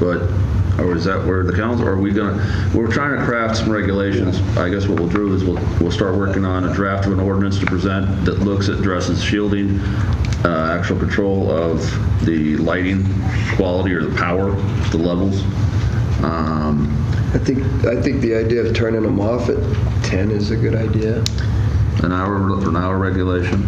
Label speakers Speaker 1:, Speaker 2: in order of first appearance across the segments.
Speaker 1: But, or is that where the council, are we going to, we're trying to craft some regulations. I guess what we'll do is we'll, we'll start working on a draft of an ordinance to present that looks at dresses shielding, uh, actual control of the lighting quality or the power, the levels. Um,
Speaker 2: I think, I think the idea of turning them off at 10 is a good idea.
Speaker 1: An hour, an hour regulation.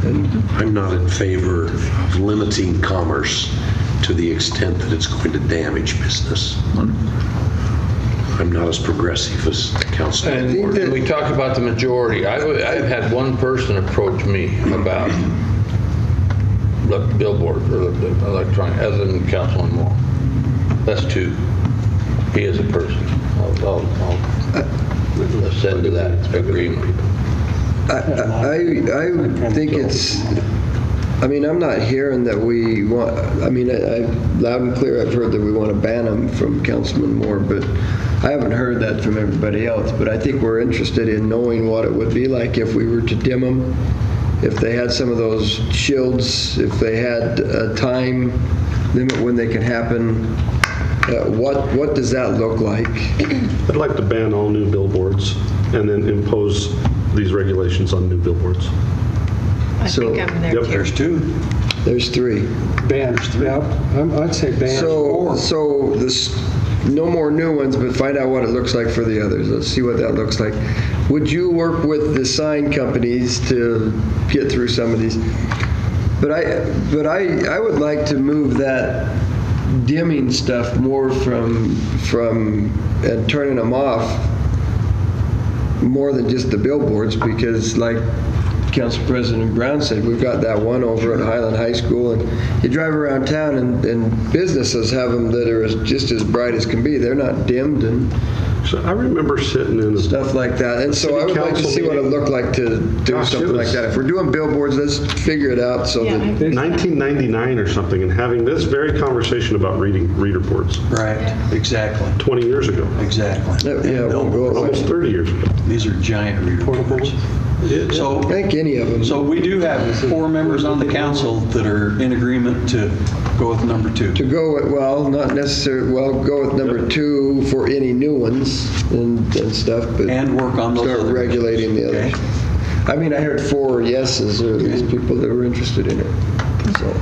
Speaker 3: I'm not in favor of limiting commerce to the extent that it's going to damage business. I'm not as progressive as Councilman
Speaker 4: And
Speaker 3: Ward.
Speaker 4: and we talk about the majority. I've, I've had one person approach me about the billboard or the electronic, other than Councilman Moore. That's two. He is a person. I'll, I'll- I'll ascend to that agreement.
Speaker 2: I, I, I think it's, I mean, I'm not hearing that we want, I mean, I, I- loud and clear, I've heard that we want to ban them from Councilman Moore, but I haven't heard that from everybody else, but I think we're interested in knowing what it would be like if we were to dim them, if they had some of those shields, if they had a time limit when they can happen, Uh, what, what does that look like?
Speaker 5: I'd like to ban all new billboards and then impose these regulations on new billboards.
Speaker 6: I
Speaker 2: So-
Speaker 6: think I'm there
Speaker 5: Yep.
Speaker 6: too.
Speaker 7: Two
Speaker 2: There's three.
Speaker 7: banners. Yeah, I'm- I'd say banners
Speaker 2: So,
Speaker 7: or
Speaker 2: so this, no more new ones, but find out what it looks like for the others. Let's see what that looks like. Would you work with the sign companies to get through some of these? But I, but I, I would like to move that dimming stuff more from, from, and turning them off more than just the billboards, because like Council President Brown said, we've got that one over at Highland High School, and you drive around town, and, and businesses have them that are as- just as bright as can be. They're not dimmed and
Speaker 5: So I remember sitting in, a-
Speaker 2: stuff like that. And so
Speaker 5: City
Speaker 2: I would like to
Speaker 5: council
Speaker 2: see what it
Speaker 5: meeting.
Speaker 2: looked like to do
Speaker 5: Gosh, it
Speaker 2: something like
Speaker 5: was-
Speaker 2: that. If we're doing billboards, let's figure it out so
Speaker 6: Yeah,
Speaker 2: that,
Speaker 6: I-
Speaker 5: 1999 or something, and having this very conversation about reading reader boards
Speaker 7: right, exactly,
Speaker 5: 20 years ago,
Speaker 7: exactly.
Speaker 2: Yeah, yeah, we'll go
Speaker 7: No,
Speaker 5: almost 30 years ago.
Speaker 7: These are giant reader boards.
Speaker 2: I
Speaker 7: So,
Speaker 2: think any of them.
Speaker 7: so we do have four members on the council that are in agreement to go with number two.
Speaker 2: To go, with- well, not necessarily, well, go with number two for any new ones and, and stuff, but.
Speaker 7: And work on those
Speaker 2: Start
Speaker 7: other-
Speaker 2: regulating the
Speaker 7: Okay.
Speaker 2: others. I mean, I heard four yeses, or at least people that were interested in it. So,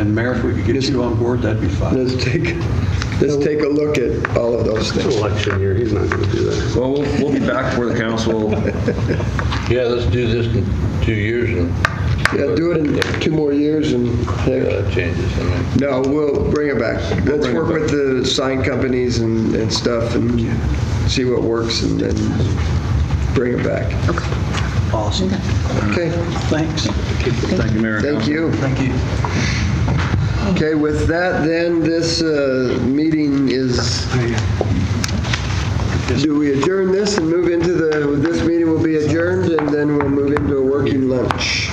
Speaker 7: And Mayor, if we could get you on board, that'd be fine.
Speaker 2: let's take, let's take a look at all of those
Speaker 5: It's
Speaker 2: things.
Speaker 5: an election year, he's not going to do that.
Speaker 1: Well, we'll, we'll be back to where the council,
Speaker 4: Yeah, let's do this in two years and.
Speaker 2: Yeah, do it in two more years and, heck,
Speaker 4: Yeah, uh, Changes, I mean.
Speaker 2: no, we'll bring it back. Let's work with the sign companies and, and stuff and see what works and then bring it back.
Speaker 7: Awesome.
Speaker 2: Okay,
Speaker 7: Thanks.
Speaker 1: thank you, Mayor. and
Speaker 2: thank
Speaker 1: Council.
Speaker 2: you.
Speaker 7: Thank you.
Speaker 2: Okay, with that, then, this uh, meeting is, do we adjourn this and move into the, this meeting will be adjourned, and then we'll move into a working lunch.